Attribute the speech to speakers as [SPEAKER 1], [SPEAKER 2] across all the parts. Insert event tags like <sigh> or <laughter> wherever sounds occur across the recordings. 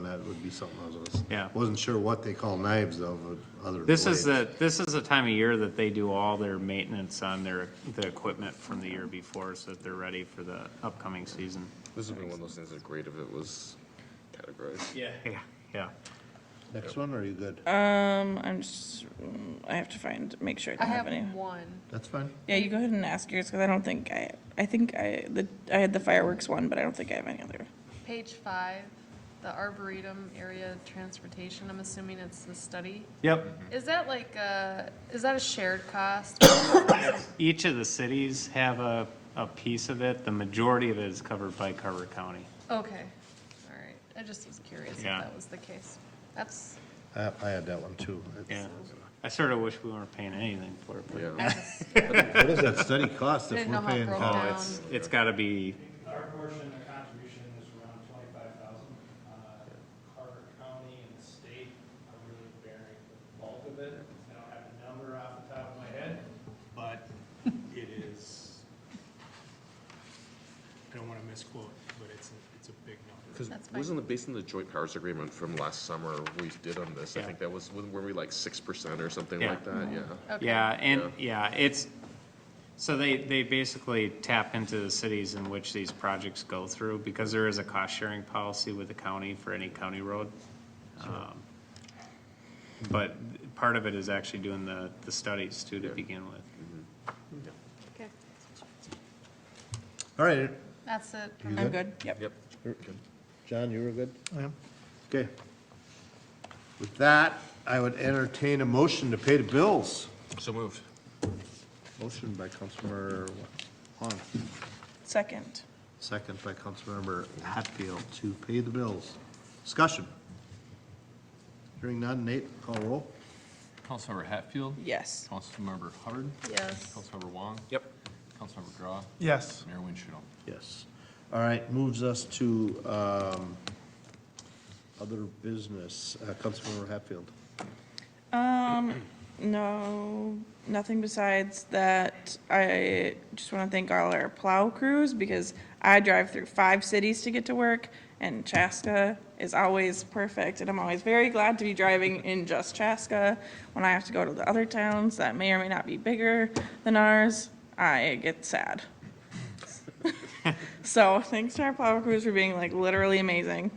[SPEAKER 1] would be something I was gonna. s-
[SPEAKER 2] Yeah.
[SPEAKER 1] Wasn't sure what they call knives though, but other. than
[SPEAKER 2] This is
[SPEAKER 1] blades.
[SPEAKER 2] the, this is the time of year that they do all their maintenance on their, the equipment from the year before, so that they're ready for the upcoming season.
[SPEAKER 3] This would be one of those things that's great if it was categorized.
[SPEAKER 2] Yeah. Yeah, yeah.
[SPEAKER 1] Next one, or are you good?
[SPEAKER 4] Uh.
[SPEAKER 5] Um, I'm just, mm, I have to find, make sure I
[SPEAKER 4] I
[SPEAKER 5] don't have
[SPEAKER 4] have
[SPEAKER 5] any.
[SPEAKER 4] one.
[SPEAKER 1] That's fine.
[SPEAKER 5] Yeah, you go ahead and ask yours, because I don't think I, I think I, the, I had the fireworks one, but I don't think I have any other.
[SPEAKER 4] Page five, the Arboretum Area Transportation, I'm assuming it's the study.
[SPEAKER 2] Yep.
[SPEAKER 4] Is that like, uh, is that a shared cost? <coughs>
[SPEAKER 2] Each of the cities have a, a piece of it. The majority of it is covered by Carver County.
[SPEAKER 4] Okay, all right. I just was curious if
[SPEAKER 2] Yeah.
[SPEAKER 4] that was the case. That's,
[SPEAKER 1] I, I had that one too.
[SPEAKER 2] Yeah. I sort of wish we weren't paying anything for it, but
[SPEAKER 4] I
[SPEAKER 3] Yeah.
[SPEAKER 4] just
[SPEAKER 1] What does that study cost if
[SPEAKER 4] didn't
[SPEAKER 1] we're
[SPEAKER 4] know how it
[SPEAKER 1] paying?
[SPEAKER 4] broke
[SPEAKER 1] for it?
[SPEAKER 4] down.
[SPEAKER 2] it's gotta be,
[SPEAKER 6] Our portion, the contribution is around twenty-five thousand. Carver County and the state are really bearing the bulk of it. I don't have the number off the top of my head, but it is, I don't want to misquote, but it's, a- it's a big number.
[SPEAKER 3] Because
[SPEAKER 4] That's fine.
[SPEAKER 3] wasn't it based on the joint powers agreement from last summer we did on this? I
[SPEAKER 2] Yeah.
[SPEAKER 3] think that was, were we like six percent or something
[SPEAKER 2] Yeah.
[SPEAKER 3] like that? Yeah.
[SPEAKER 4] Okay.
[SPEAKER 2] yeah, and, yeah, it's, so they, they basically tap into the cities in which these projects go through, because there is a cost sharing policy with the county for any county road. Um, But part of it is actually doing the, the studies too to begin with.
[SPEAKER 4] Okay,
[SPEAKER 1] All right,
[SPEAKER 4] that's it. for
[SPEAKER 1] You
[SPEAKER 4] my-
[SPEAKER 5] I'm good, yep.
[SPEAKER 3] Yep.
[SPEAKER 1] John, you were good?
[SPEAKER 7] I am.
[SPEAKER 1] Okay. With that, I would entertain a motion to pay the bills.
[SPEAKER 3] So moved.
[SPEAKER 1] Motion by Councilmember Wong,
[SPEAKER 5] Second,
[SPEAKER 1] second by Councilmember Hatfield to pay the bills. Discussion. Hearing none, Nate, call roll.
[SPEAKER 8] Councilmember Hatfield?
[SPEAKER 5] yes.
[SPEAKER 8] Councilmember Hubbard?
[SPEAKER 4] Yes.
[SPEAKER 8] Councilmember Wong?
[SPEAKER 3] Yep.
[SPEAKER 8] Councilmember Grau?
[SPEAKER 7] Yes.
[SPEAKER 8] Mayor Winchell?
[SPEAKER 1] Yes. All right, moves us to um, other business. Uh, Councilmember Hatfield.
[SPEAKER 5] No, nothing besides that. I just want to thank all our plow crews because I drive through five cities to get to work and Chaska is always perfect. And I'm always very glad to be driving in just Chaska. When I have to go to the other towns that may or may not be bigger than ours, I get sad. So thanks to our plow crews for being like literally amazing.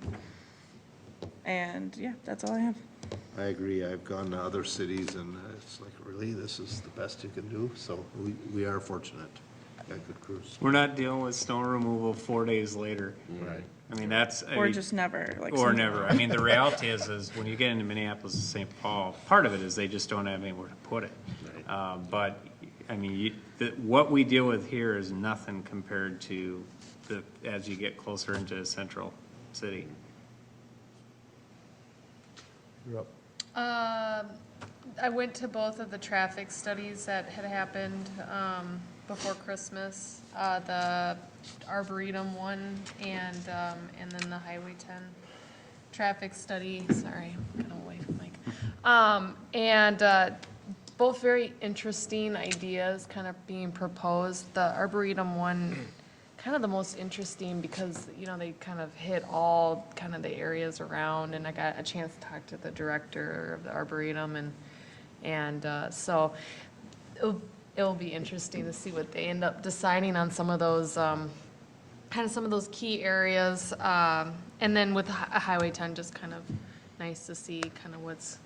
[SPEAKER 5] And yeah, that's all I have.
[SPEAKER 1] I agree. I've gone to other cities and it's like, really, this is the best you can do? So we, we are fortunate. Got good crews.
[SPEAKER 2] We're not dealing with snow removal four days later.
[SPEAKER 1] Right.
[SPEAKER 2] I mean, that's. I
[SPEAKER 5] Or
[SPEAKER 2] mean,
[SPEAKER 5] just never, like.
[SPEAKER 2] Or
[SPEAKER 5] some-
[SPEAKER 2] never. I mean, the reality is, is when you get into Minneapolis and St. Paul, part of it is they just don't have anywhere to put it. Uh, But, I mean, you, the, what we deal with here is nothing compared to the, as you get closer into central city.
[SPEAKER 1] You're up.
[SPEAKER 4] Um, I went to both of the traffic studies that had happened um, before Christmas, uh, the Arboretum one and, um, and then the Highway 10 traffic study, sorry, I'm kind of away from Mike. Um, And uh, both very interesting ideas kind of being proposed. The Arboretum one, kind of the most interesting because, you know, they kind of hit all kind of the areas around. And I got a chance to talk to the director of the Arboretum and, and uh, so it'll, it'll be interesting to see what they end up deciding on some of those, um, kind of some of those key areas. Um, and then with Hi- Highway 10, just kind of nice to see kind of what's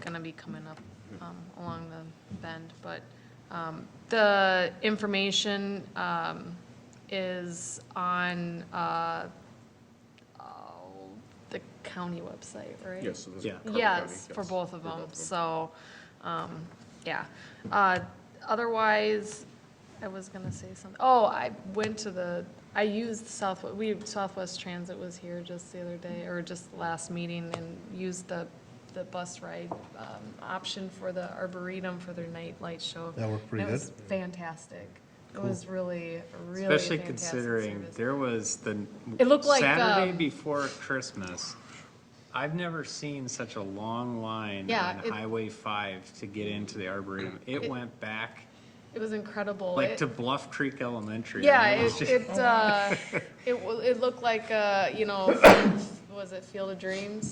[SPEAKER 4] going to be coming up um, along the bend. But um, the information um, is on uh, oh, the county website, right?
[SPEAKER 3] Yes. so this is
[SPEAKER 2] Yeah.
[SPEAKER 3] Carver County,
[SPEAKER 4] Yes, for both of them, so, um, yeah. Uh, otherwise, I was gonna say something, oh, I went to the, I used Southwest, we, Southwest Transit was here just the other day, or just last meeting, and used the, the bus ride, um, option for the Arboretum for their night light show.
[SPEAKER 1] That worked pretty
[SPEAKER 4] And It was fantastic. It was really, really a
[SPEAKER 2] Especially
[SPEAKER 4] fantastic
[SPEAKER 2] considering
[SPEAKER 4] service.
[SPEAKER 2] there was the.
[SPEAKER 4] It looked like,
[SPEAKER 2] Saturday
[SPEAKER 4] um,
[SPEAKER 2] before Christmas, I've never seen such a long line
[SPEAKER 4] Yeah,
[SPEAKER 2] on
[SPEAKER 4] it-
[SPEAKER 2] Highway five to get into the Arboretum. It went back
[SPEAKER 4] It was incredible.
[SPEAKER 2] like
[SPEAKER 4] It-
[SPEAKER 2] to Bluff Creek Elementary.
[SPEAKER 4] Yeah,
[SPEAKER 2] It was
[SPEAKER 4] it,
[SPEAKER 2] just-
[SPEAKER 4] it, uh, it, wa- it looked like, uh, you know, was it Field of Dreams?